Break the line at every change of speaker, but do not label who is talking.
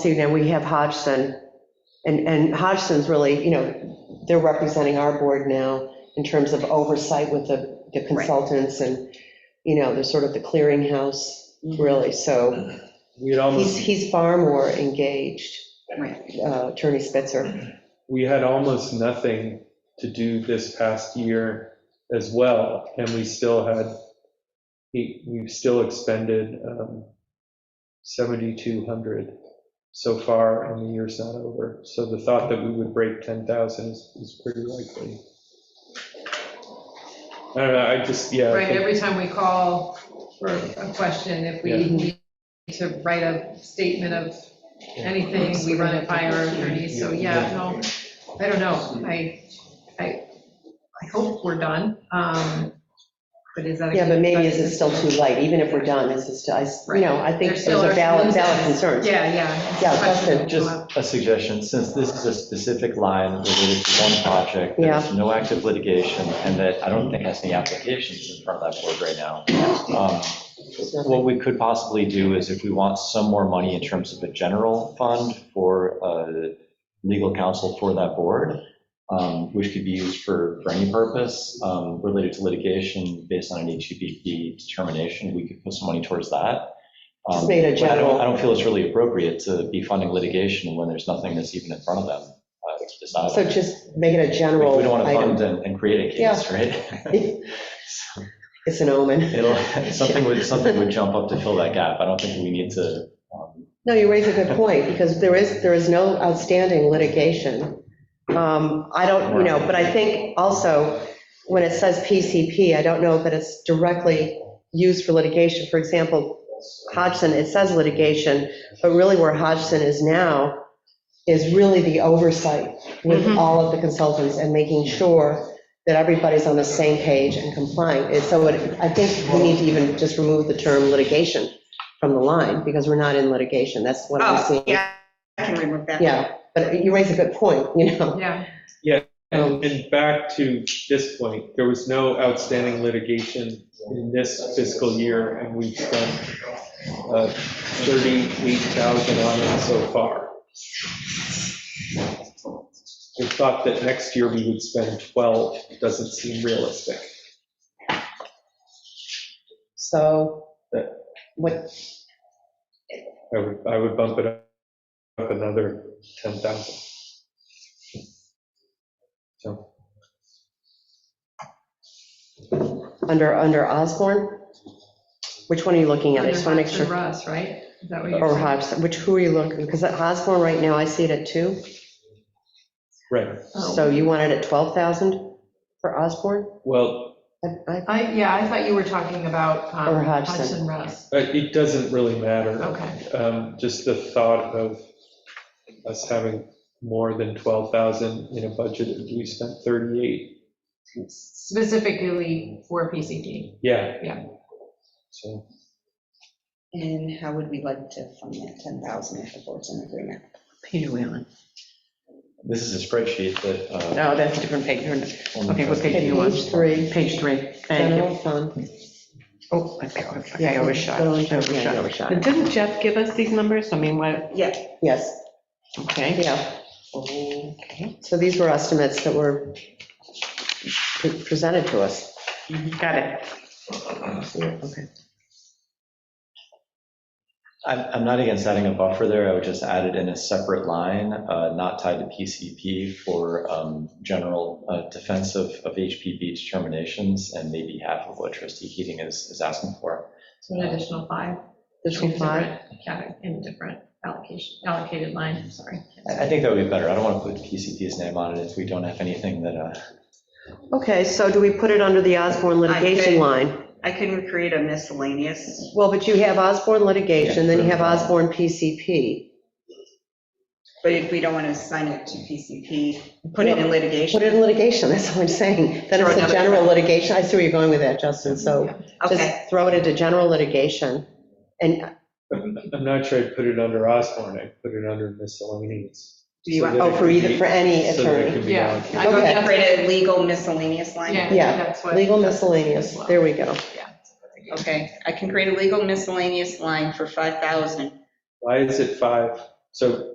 see, now we have Hodgson, and, and Hodgson's really, you know, they're representing our board now in terms of oversight with the the consultants, and, you know, they're sort of the clearinghouse, really, so
We
he's,
had
Um,
almost,
he's far more engaged,
Right.
uh, Attorney Spitzer.
we had almost nothing to do this past year as well, and we still had, we- we've still expended um, 7,200 so far, and the year's not over. So the thought that we would break 10,000 is is pretty likely. I don't know, I just, yeah. I
Right,
think-
every time we call for a question, if we
Yeah.
need to write a statement of anything, we run it by our attorney, so yeah, no, I don't know, I, I, I hope we're done, um, but is that? a
Yeah, but
good-
maybe is it still too late, even if we're done, is it still, I s- you know, I think there's
There's still
a
our
valid, valid
concerns.
concern.
Yeah, yeah.
Yeah,
Question.
Just a suggestion, since this is a specific line related to one project,
Yeah.
there's no active litigation, and that I don't think has any applications in front of that board right now. um, What we could possibly do is if we want some more money in terms of a general fund for uh, legal counsel for that board, um, which could be used for, for any purpose um, related to litigation based on an HPP determination, we could put some money towards that.
Just
Um,
made a
but I
general-
don't, I don't feel it's really appropriate to be funding litigation when there's nothing that's even in front of them. uh, to decide on.
So just make it a
We we
general
don't want to fund
item.
and, and create a case, right?
It's an omen.
It'll, something would, something would jump up to fill that gap. I don't think we need to, um,
No, you raise a good point, because there is, there is no outstanding litigation. Um, I don't, you know, but I think also, when it says PCP, I don't know that it's directly used for litigation. For example, Hodgson, it says litigation, but really where Hodgson is now is really the oversight with
Mhm.
all of the consultants and making sure that everybody's on the same page and complying. And so it- I think we need to even just remove the term litigation from the line, because we're not in litigation, that's what I'm
Oh,
seeing.
yeah, I can remove that.
Yeah, but you raise a good point, you know? Um,
Yeah,
And and back to this point, there was no outstanding litigation in this fiscal year, and we've spent uh, 38,000 on it so far. The thought that next year we would spend 12 doesn't seem realistic.
So, what,
I would, I would bump it up up another 10,000. So,
under, under Osborne? Which one are you looking at? I
under
just want to make
Hudson
sure.
Russ, right? Is that what
Or
you're saying?
Hodgson, which, who are you looking, because at Osborne right now, I see it at two,
right,
Oh.
so you want it at 12,000 for Osborne?
well,
I- I-
I, yeah, I thought you were talking about. um,
Or Hodgson.
Hudson Russ,
uh, it doesn't really matter.
okay,
um, just the thought of us having more than 12,000 in a budget, that we spent 38,
specifically for PCP.
yeah.
Yeah.
So,
And how would we like to fund that 10,000 if the board's in agreement?
Page are we on?
this is a spreadsheet that. uh,
No, that's a different page. You're-
only
Okay, what
has-
page do you
Page
want?
three,
Page three, thank
general
you.
fund.
Oh, okay, okay, I overshot, I
Go on, yeah, you
overshot.
overshot.
But didn't Jeff give us these numbers? I mean, what,
Yeah,
Yes,
okay.
yeah,
Okay.
so these were estimates that were pre- presented to us.
Mm-hmm. Got it.
I'm, I'm not against adding a buffer there, I would just add it in a separate line, uh, not tied to PCP for um, general uh, defense of, of HPP determinations and maybe half of what trustee Keating is, is asking for.
So an additional five.
There's one five,
different cate- In different allocation, allocated line, sorry.
I, I think that would be better, I don't want to put PCP's name on it if we don't have anything that, uh,
okay, so do we put it under the Osborne litigation
could-
line?
I can create a miscellaneous.
Well, but you have Osborne litigation, then you have Osborne PCP.
But if we don't want to assign it to PCP, put it in
Put
litigation.
it in litigation, that's what I'm saying. Then it's a general litigation. I see where you're going with that, Justin, so
Okay,
just throw it into general litigation. And,
I'm not sure I'd put it under Osborne, I'd put it under miscellaneous.
do you
So
want,
that it
oh, for
could
either,
be-
for any
so that it
attorney.
could be
Yeah.
allocated.
I think
Okay.
that's-
create a legal miscellaneous
Yeah, I
line?
think
Yeah,
that's what-
Legal
that's-
miscellaneous, there we go.
Yeah.
Okay, I can create a legal miscellaneous line for 5,000.
Why is it five? So